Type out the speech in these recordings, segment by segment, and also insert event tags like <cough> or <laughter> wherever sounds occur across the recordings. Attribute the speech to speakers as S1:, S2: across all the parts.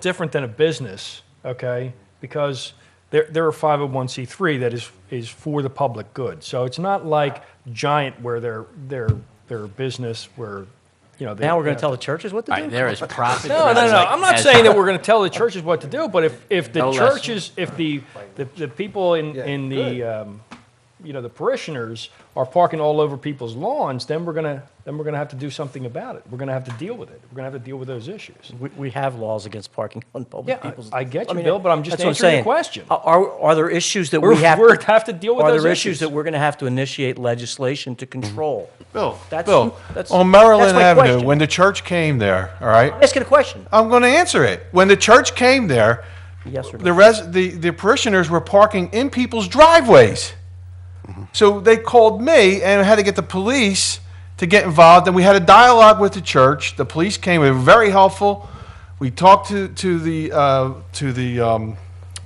S1: different than a business, okay? Because they're, they're a 501c3 that is, is for the public good. So it's not like Giant where they're, they're, they're a business where, you know. they-
S2: Now we're going to tell the churches what to
S3: All
S2: do?
S3: right, there is profit.
S1: No, no,
S3: driven
S1: no. I'm not
S3: as- <laughs>
S1: saying that we're going to tell the churches what to do, but if, if the
S3: No less.
S1: churches, if the, the, the people in, in the, um, you know, the parishioners are parking all over people's lawns, then we're going to, then we're going to have to do something about it. We're going to have to deal with it. We're going to have to deal with those
S3: <laughs>
S1: issues.
S2: We, we have laws against parking on public
S1: Yeah,
S2: people's.
S1: I I get
S2: I
S1: you,
S2: mean,
S1: Bill, but I'm just
S2: that's what
S1: answering your
S2: saying.
S1: question.
S2: Are- Are, are there issues that
S1: We're-
S2: we have?
S1: we're- have to deal with those
S2: Are there
S1: issues.
S2: issues that we're going to have to initiate legislation to control?
S4: Bill,
S2: That's-
S4: Bill,
S2: that's-
S4: on Maryland
S2: that's my
S4: Avenue,
S2: question.
S4: when the church came there, all right,
S2: I'm Asking a question,
S4: I'm going to answer it. When the church came there,
S2: yes or
S4: the,
S2: no?
S4: res- the, the parishioners were parking in people's driveways. So they called me and had to get the police to get involved. And we had a dialogue with the church. The police came; they were very helpful. We talked to to the uh, to the um,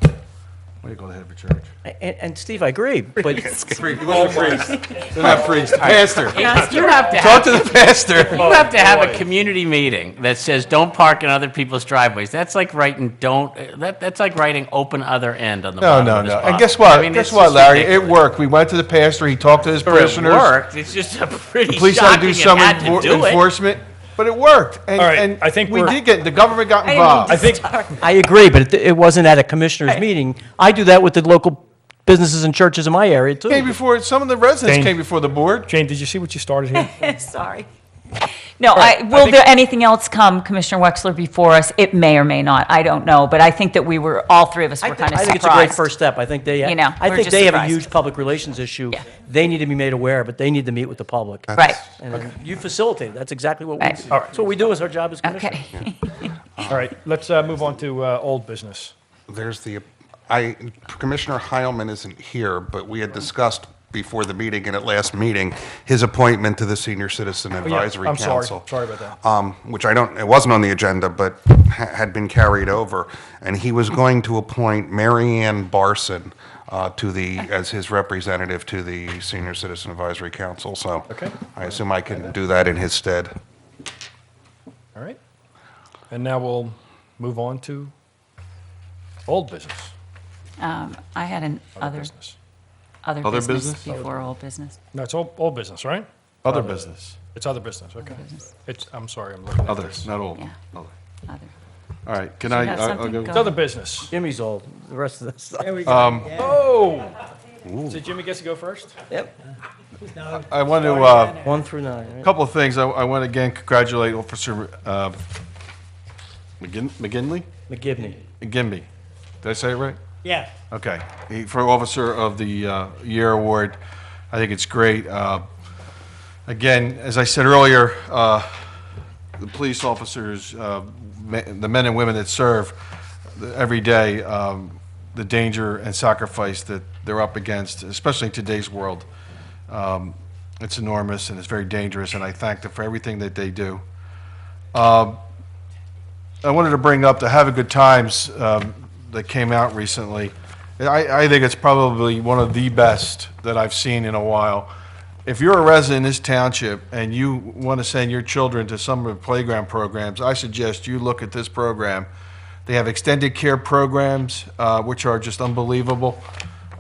S4: what do you call the head of a church?
S2: And, and Steve,
S4: <laughs>
S2: I agree, but
S4: Priest. It wasn't a priest. They're not priest. Pastor.
S3: You have to
S4: Talk
S3: have,
S4: to the pastor.
S3: you have to have a community meeting that says, don't park in other people's driveways. That's like writing, don't, that, that's like writing open other end on the
S4: No,
S3: bottom
S4: no,
S3: of this
S4: no.
S3: bottle.
S4: And guess what?
S3: I mean,
S4: guess
S3: it's
S4: what,
S3: just
S4: Larry? It
S3: ridiculous.
S4: worked. We went to the pastor. He talked to his parishioners.
S3: It worked. It's just a pretty
S4: Police had to do some
S3: shocking, it had to
S4: enfor-
S3: do it.
S4: enforcement, but it worked. And,
S1: All right,
S4: and
S1: I think
S4: we
S1: we're-
S4: did get the government got involved.
S1: I think,
S2: I agree, but it, it wasn't at a commissioner's meeting. I do that with the local businesses and churches in my area too.
S4: came before some of the residents
S1: Jane.
S4: came before the board.
S1: Jane, did you see what you started here?
S5: <laughs> Sorry. No, I, will there anything else come, Commissioner Wexler, before us? It may or may not, I don't know, but I think that we were, all three of us
S2: I
S5: were
S2: think-
S5: kind of surprised.
S2: I think it's a great first step. I think they,
S5: You know,
S2: I
S5: we're
S2: think
S5: just
S2: they have a
S5: surprised.
S2: huge public relations issue.
S5: Yeah.
S2: They need to be made aware, but they need to meet with the public.
S5: Right,
S2: And You facilitate. That's exactly what we,
S5: Right.
S2: do. that's what we do is our job as commissioners.
S5: okay.
S1: All right, let's uh, move on to uh, old business.
S6: There's the, I, Commissioner Heilman isn't here, but we had discussed before the meeting and at last meeting, his appointment to the Senior Citizen
S1: Oh, yeah,
S6: Advisory
S1: I'm sorry,
S6: Council.
S1: sorry about that.
S6: Um, which I don't, it wasn't on the agenda, but ha- had been carried over. And he was going to appoint Mary Ann Barson uh, to the, as his representative to the Senior Citizen Advisory Council, so.
S1: Okay.
S6: I assume I can do that in his stead.
S1: All right. And now we'll move on to old business.
S5: <laughs> Um, I had an
S1: Other
S5: other,
S1: business.
S5: other
S4: Other
S5: business
S4: business?
S5: before old business.
S1: No, it's old, old business, right?
S4: Other business.
S1: It's other business, okay.
S5: business.
S1: It's, I'm sorry, I'm looking at
S7: Other,
S1: this.
S7: not old.
S5: Yeah.
S7: Other.
S5: Other.
S7: All right, can
S5: You
S7: I,
S5: got
S7: I'll- I'll
S5: something?
S7: go.
S5: Go
S1: It's other business.
S2: Jimmy's old. The rest of us.
S1: Oh! So Jimmy gets to go first?
S2: Yep.
S7: I want to, uh,
S2: One through nine.
S7: a
S2: right?
S7: couple of things. I, I want to again congratulate Officer uh, McGin- McGinley?
S2: McGivney.
S7: McGinby. Did I say it right?
S8: Yeah.
S7: Okay. He- For Officer of the uh, Year Award, I think it's great. Uh, Again, as I said earlier, uh, the police officers, uh, me- the men and women that serve the- every day, um, the danger and sacrifice that they're up against, especially in today's world, um, it's enormous and it's very dangerous, and I thank them for everything that they do. I wanted to bring up the Have a Good Times um, that came out recently. And I, I think it's probably one of the best that I've seen in a while. If you're a resident in this township and you want to send your children to some of the playground programs, I suggest you look at this program. They have extended care programs, uh, which are just unbelievable.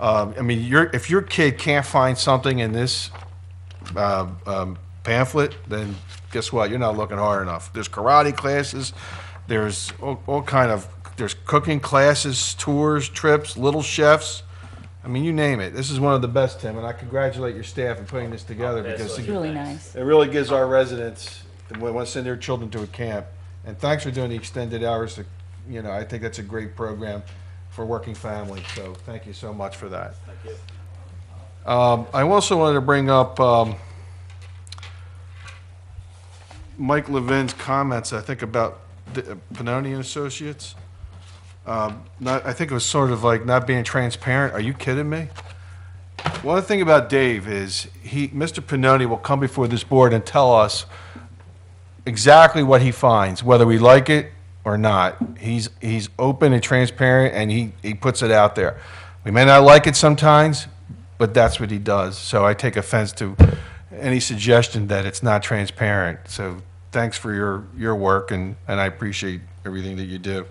S7: Um, I mean, your if your kid can't find something in this uh, um, pamphlet, then guess what? You're not looking hard enough. There's karate classes. There's all, all kind of there's cooking classes, tours, trips, little chefs. I mean, you name it. This is one of the best, Tim, and I congratulate your staff in putting this together because
S5: It's really nice.
S7: it really gives our residents that want to send their children to a camp. And thanks for doing the extended hours. To, you know, I think that's a great program for working families. So thank you so much for that. Thank you. Um, I also wanted to bring up um, Mike Levin's comments. I think about the, uh, Pannoni and Associates. Um, not, I think it was sort of like not being transparent. Are you kidding me? One thing about Dave is he, Mr. Pinoni will come before this board and tell us exactly what he finds, whether we like it or not. He's, he's open and transparent and he, he puts it out there. We may not like it sometimes, but that's what he does. So I take offense to any suggestion that it's not transparent. So thanks for your, your work and, and I appreciate everything that you do.